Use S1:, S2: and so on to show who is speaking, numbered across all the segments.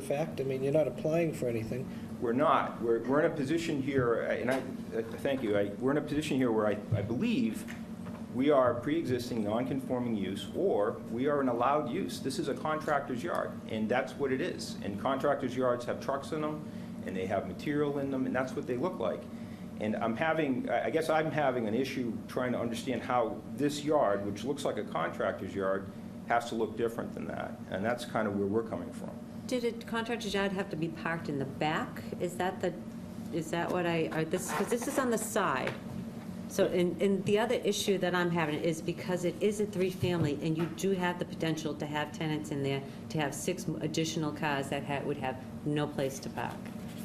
S1: fact, I mean, you're not applying for anything.
S2: We're not. We're, we're in a position here, uh, and I, uh, thank you, I, we're in a position here where I, I believe we are pre-existing non-conforming use, or we are an allowed use. This is a contractor's yard, and that's what it is. And contractors' yards have trucks in them, and they have material in them, and that's what they look like. And I'm having, I I guess I'm having an issue trying to understand how this yard, which looks like a contractor's yard, has to look different than that. And that's kind of where we're coming from.
S3: Did a contractor's yard have to be parked in the back? Is that the, is that what I, or this, because this is on the side. So, and, and the other issue that I'm having is because it is a three-family, and you do have the potential to have tenants in there, to have six additional cars that ha would have no place to park.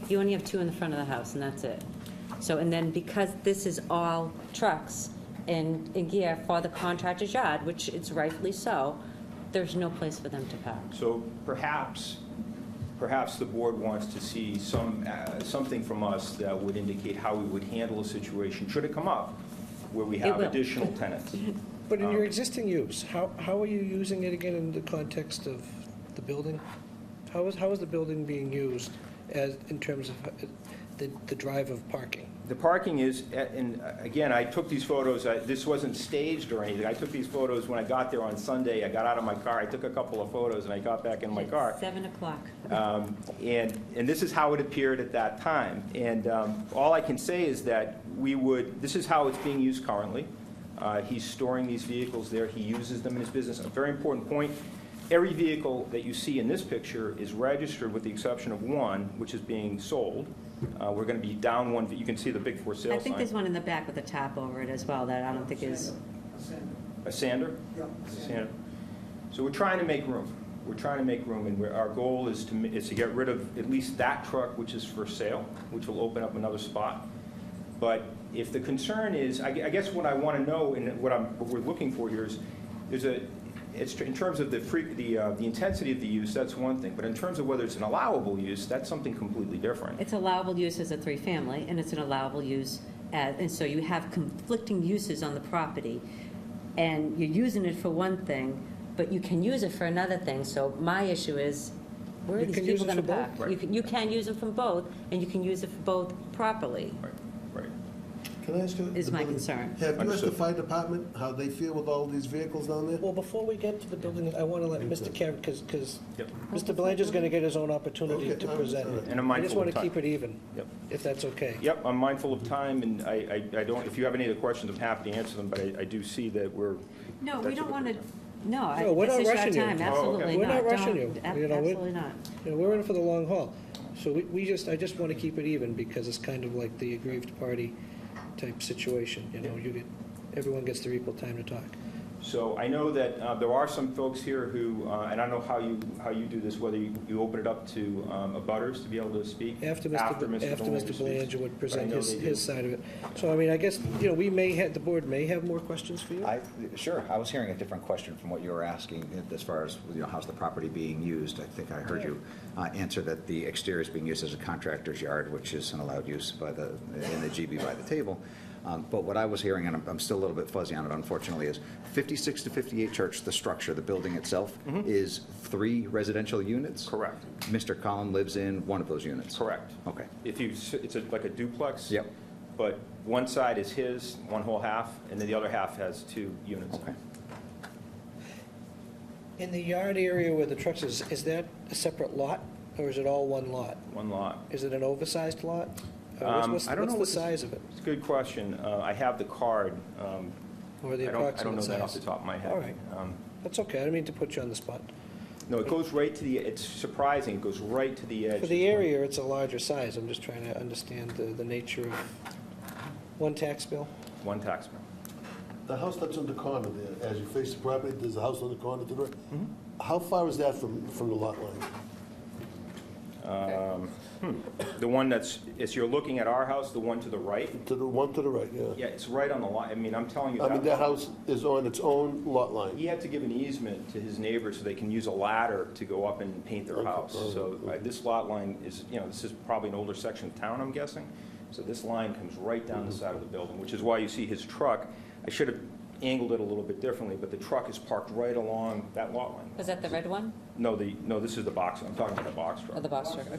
S3: You only have two in the front of the house, and that's it. So, and then because this is all trucks and, and gear for the contractor's yard, which it's rightfully so, there's no place for them to park.
S2: So perhaps, perhaps the board wants to see some, uh, something from us that would indicate how we would handle a situation, should it come up, where we have
S3: will.
S2: additional tenants.
S1: But in your existing use, how, how are you using it again in the context of the building? How is, how is the building being used as, in terms of uh, the, the drive of parking?
S2: The parking is, and uh, again, I took these photos, I- this wasn't staged or anything. I took these photos when I got there on Sunday. I got out of my car, I took a couple of photos, and I got back in my car.
S3: Seven o'clock.
S2: Um, And, and this is how it appeared at that time. And um, all I can say is that we would, this is how it's being used currently. Uh, He's storing these vehicles there, he uses them in his business. A very important point, every vehicle that you see in this picture is registered with the exception of one, which is being sold. Uh, We're going to be down one, you can see the big for
S3: I
S2: sale
S3: think
S2: sign.
S3: there's one in the back with a top over it as well that I don't think is,
S2: A sander? Santa. So we're trying to make room. We're trying to make room, and we're, our goal is to, ma- is to get rid of at least that truck, which is for sale, which will open up another spot. But if the concern is, I, gue- I guess what I want to know and what I'm, what we're looking for here is, there's a, it's, tr- in terms of the free, the, uh, the intensity of the use, that's one thing. But in terms of whether it's an allowable use, that's something completely different.
S3: it's allowable use as a three-family, and it's an allowable use as, and so you have conflicting uses on the property, and you're using it for one thing, but you can use it for another thing, so my issue is, where are
S1: You
S3: these
S1: can use
S3: people
S1: it
S3: gonna
S1: for both.
S3: park? You can, you can use them from both, and you can use it for both properly.
S2: Right, right.
S4: Can I ask you?
S3: Is
S4: the
S3: my
S4: building-
S3: concern.
S4: Have you asked the
S2: Understood.
S4: fire department how they feel with all these vehicles down there?
S1: Well, before we get to the building, I want to let Mr. Karen, because, because
S2: Yep.
S1: Mr. Belanger's going to get his own opportunity
S4: Okay,
S1: to
S4: all right,
S1: present.
S4: all right.
S2: And I'm
S1: I just
S2: mindful
S1: want
S2: of
S1: to
S2: time.
S1: keep it even,
S2: Yep.
S1: if that's okay.
S2: Yep, I'm mindful of time, and I, I I don't, if you have any other questions, I'm happy to answer them, but I, I do see that we're.
S3: No, we
S2: that's
S3: don't
S2: what
S3: wanna,
S2: we're-
S3: no, I-
S1: No, we're
S3: this
S1: not
S3: is your
S1: rushing you.
S3: time,
S2: Oh, okay.
S3: absolutely
S1: We're
S3: not.
S1: not rushing
S3: Don't-
S1: you.
S3: ab-
S1: You know, we-
S3: Absolutely not.
S1: You know, we're in for the long haul. So we, we just, I just want to keep it even because it's kind of like the aggrieved party type situation, you know, you get, everyone gets their equal time to talk.
S2: So I know that uh, there are some folks here who, uh, and I don't know how you, how you do this, whether you you open it up to um, abutters to be able to speak?
S1: After Mr. B- After
S2: Belanger
S1: Mr.
S2: speaks.
S1: Belanger would present
S2: know
S1: his,
S2: they do.
S1: his side of it. So I mean, I guess, you know, we may have, the board may have more questions for you.
S5: I, sure, I was hearing a different question from what you were asking as far as, you know, how's the property being used? I think I heard you uh, answer that the exterior is being used as a contractor's yard, which is an allowed use by the, in the GB by the table. Um, But what I was hearing, and I'm- I'm still a little bit fuzzy on it unfortunately, is 56 to 58 Church, the structure, the building itself, is three residential units?
S2: Mm-hmm. Correct,
S5: Mr. Collin lives in one of those units?
S2: correct.
S5: Okay.
S2: If you, s- it's a- like a duplex?
S5: Yep.
S2: But one side is his, one whole half, and then the other half has two units.
S5: Okay.
S1: In the yard area where the trucks is, is that a separate lot or is it all one lot?
S2: One lot.
S1: Is it an oversized lot? Or what's-
S2: Um,
S1: what's-
S2: I don't know
S1: What's
S2: what
S1: the
S2: this-
S1: size of it
S2: It's a good question. Uh, I have the card. um,
S1: or the
S2: I don't- I don't
S1: approximate
S2: know
S1: size?
S2: that off the top of my head.
S1: All right.
S2: Um,
S1: That's okay, I didn't mean to put you on the spot.
S2: No, it goes right to the, it's surprising, it goes right to the edge.
S1: For the area, it's a larger size, I'm just trying to understand the, the nature of one tax bill.
S2: One tax man.
S4: The house that's on the corner there, as you face the property, there's a house on the corner to the right.
S3: Mm-hmm.
S4: How far is that from, from the lot line?
S2: The one that's, as you're looking at our house, the one to the right,
S4: To the, one to the right, yeah.
S2: yeah, it's right on the line, I mean, I'm telling you.
S4: I mean,
S2: that-
S4: that house is on its own lot line.
S2: He had to give an easement to his neighbor so they can use a ladder to go up and paint their
S4: Okay,
S2: house.
S4: oh,
S2: So uh, this lot line is, you know, this is probably an older section of town, I'm
S4: Mm-hmm.
S2: guessing. So this line comes right down the side of the building, which is why you see his truck. I should have angled it a little bit differently, but the truck is parked right along that lot line.
S3: Was that the red one
S2: No, the, no, this is the box, I'm talking about the box truck.
S3: or the box truck?